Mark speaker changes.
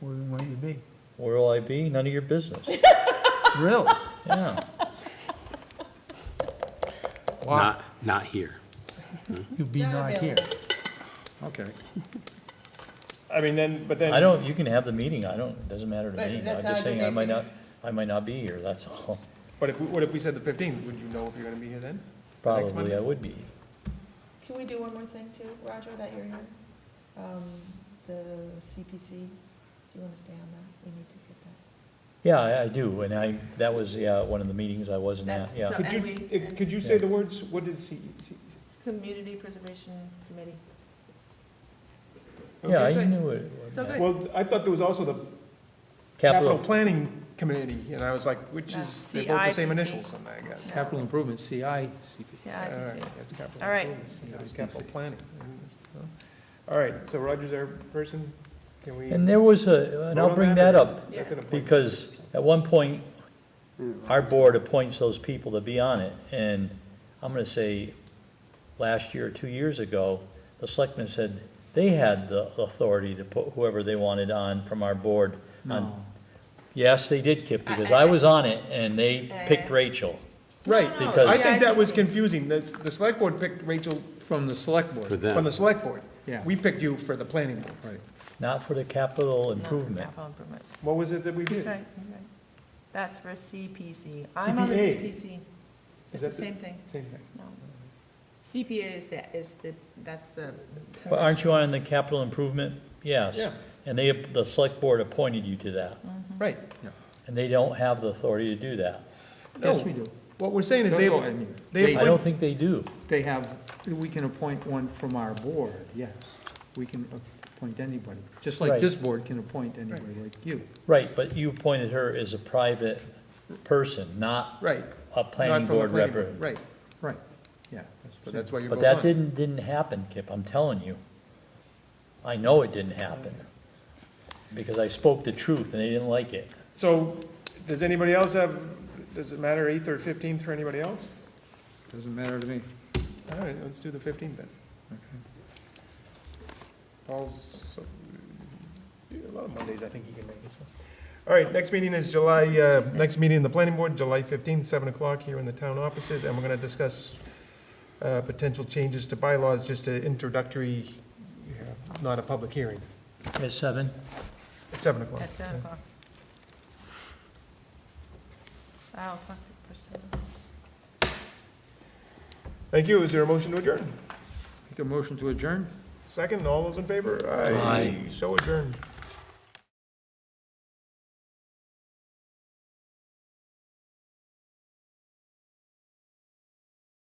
Speaker 1: Where might you be?
Speaker 2: Where will I be? None of your business.
Speaker 1: Really?
Speaker 2: Yeah.
Speaker 1: Wow,
Speaker 3: Not, not here.
Speaker 1: you'll be
Speaker 4: Not
Speaker 1: not here.
Speaker 3: Okay.
Speaker 5: I mean, then, but then.
Speaker 2: I don't, you can have the meeting. I don't, it doesn't matter to
Speaker 4: But
Speaker 2: me. I'm
Speaker 4: that's
Speaker 2: just
Speaker 4: not a good
Speaker 2: saying I
Speaker 4: day
Speaker 2: might
Speaker 4: for you.
Speaker 2: not, I might not be here, that's all.
Speaker 5: But if, we- what if we said the fifteenth, would you know if you're gonna be here then?
Speaker 2: Probably
Speaker 5: Monday?
Speaker 2: I would be.
Speaker 4: Can we do one more thing too, Roger, that you're here? Um, the CPC, do you wanna stay on that? We need to get that.
Speaker 2: Yeah, I, I do, and I, that was, yeah, one of the meetings I wasn't at,
Speaker 6: That's-
Speaker 2: yeah.
Speaker 6: so-
Speaker 5: Could
Speaker 6: and
Speaker 5: you,
Speaker 6: we-
Speaker 5: eh, could you
Speaker 2: and-
Speaker 5: say the words, what is he? he-
Speaker 6: It's Community Preservation Committee.
Speaker 2: Yeah,
Speaker 6: So
Speaker 2: I
Speaker 6: good.
Speaker 2: knew it. was
Speaker 6: So good.
Speaker 5: Well, I thought there was also the Capital
Speaker 2: Capital,
Speaker 5: Planning Committee, and I was like, which is,
Speaker 4: That's
Speaker 5: they're both the same
Speaker 4: CIPC.
Speaker 5: initials, and I got.
Speaker 1: Capital improvement, CI,
Speaker 5: All
Speaker 4: Yeah, I
Speaker 5: right, that's capital
Speaker 4: All right.
Speaker 5: improvements, and that was
Speaker 3: CIPC.
Speaker 5: capital planning. All right, so Roger's our person, can we?
Speaker 2: and there was a, and
Speaker 5: vote
Speaker 2: I'll
Speaker 5: on
Speaker 2: bring that
Speaker 5: or-
Speaker 2: up,
Speaker 5: That's an appointment.
Speaker 2: because at one point, our board appoints those people to be on it, and I'm gonna say, last year, two years ago, the selectmen said they had the authority to put whoever they wanted on from our board on. Yes, they did, Kip, because I was on it, and they picked Rachel.
Speaker 5: Right,
Speaker 6: No, no,
Speaker 2: because-
Speaker 5: I think that was
Speaker 6: CIPC.
Speaker 5: confusing, the, the select board picked Rachel
Speaker 1: from the select
Speaker 3: For
Speaker 1: board.
Speaker 5: from the
Speaker 3: them.
Speaker 5: select board.
Speaker 1: Yeah.
Speaker 5: We picked you for the planning board.
Speaker 1: Right.
Speaker 2: Not for the capital
Speaker 4: Not
Speaker 2: improvement.
Speaker 4: capital improvement.
Speaker 5: What was it that we
Speaker 4: He's
Speaker 5: did?
Speaker 4: right, he's right. That's for CPC. I'm on the
Speaker 5: CPA.
Speaker 4: CPC.
Speaker 5: Is
Speaker 4: It's
Speaker 5: that
Speaker 4: the same thing,
Speaker 5: Same thing.
Speaker 4: no. CPA is the, is the, that's the.
Speaker 2: But aren't you on the capital improvement? Yes.
Speaker 5: Yeah.
Speaker 2: And they, the select board appointed you to that,
Speaker 5: Right.
Speaker 2: and they don't have the authority to do that.
Speaker 1: Yes,
Speaker 5: No.
Speaker 1: we do.
Speaker 5: What we're saying is
Speaker 1: No,
Speaker 5: they,
Speaker 1: no, I mean,
Speaker 5: they
Speaker 1: they-
Speaker 2: I don't think they do.
Speaker 1: They have, we can appoint one from our board, yes. We can appoint anybody, just like
Speaker 2: Right.
Speaker 1: this board can appoint anybody like you.
Speaker 2: Right, but you appointed her as a private person, not
Speaker 5: right.
Speaker 2: a
Speaker 5: not
Speaker 2: planning
Speaker 5: from the
Speaker 2: board
Speaker 5: planning
Speaker 2: representative.
Speaker 5: Right,
Speaker 1: Right, yeah.
Speaker 5: so that's why you're
Speaker 2: But
Speaker 5: both
Speaker 2: that
Speaker 5: on.
Speaker 2: didn't, didn't happen, Kip, I'm telling you. I know it didn't happen, because I spoke the truth and they didn't like it.
Speaker 5: So, does anybody else have, does it matter eighth or fifteenth for anybody else?
Speaker 1: Doesn't matter to me.
Speaker 5: All right, let's do the fifteenth then. Paul's, so- a lot of Mondays, I think he can make it, so. All right, next meeting is July, uh, next meeting, the planning board, July fifteenth, seven o'clock here in the town offices, and we're gonna discuss uh, potential changes to bylaws, just an introductory, yeah, not a public hearing,
Speaker 2: At seven?
Speaker 5: at seven o'clock.
Speaker 4: At seven o'clock. Oh, fuck, Priscilla.
Speaker 5: Thank you, is there a motion to adjourn?
Speaker 1: Make a motion to adjourn?
Speaker 5: Second, all those in favor?
Speaker 2: Aye.
Speaker 5: So adjourned.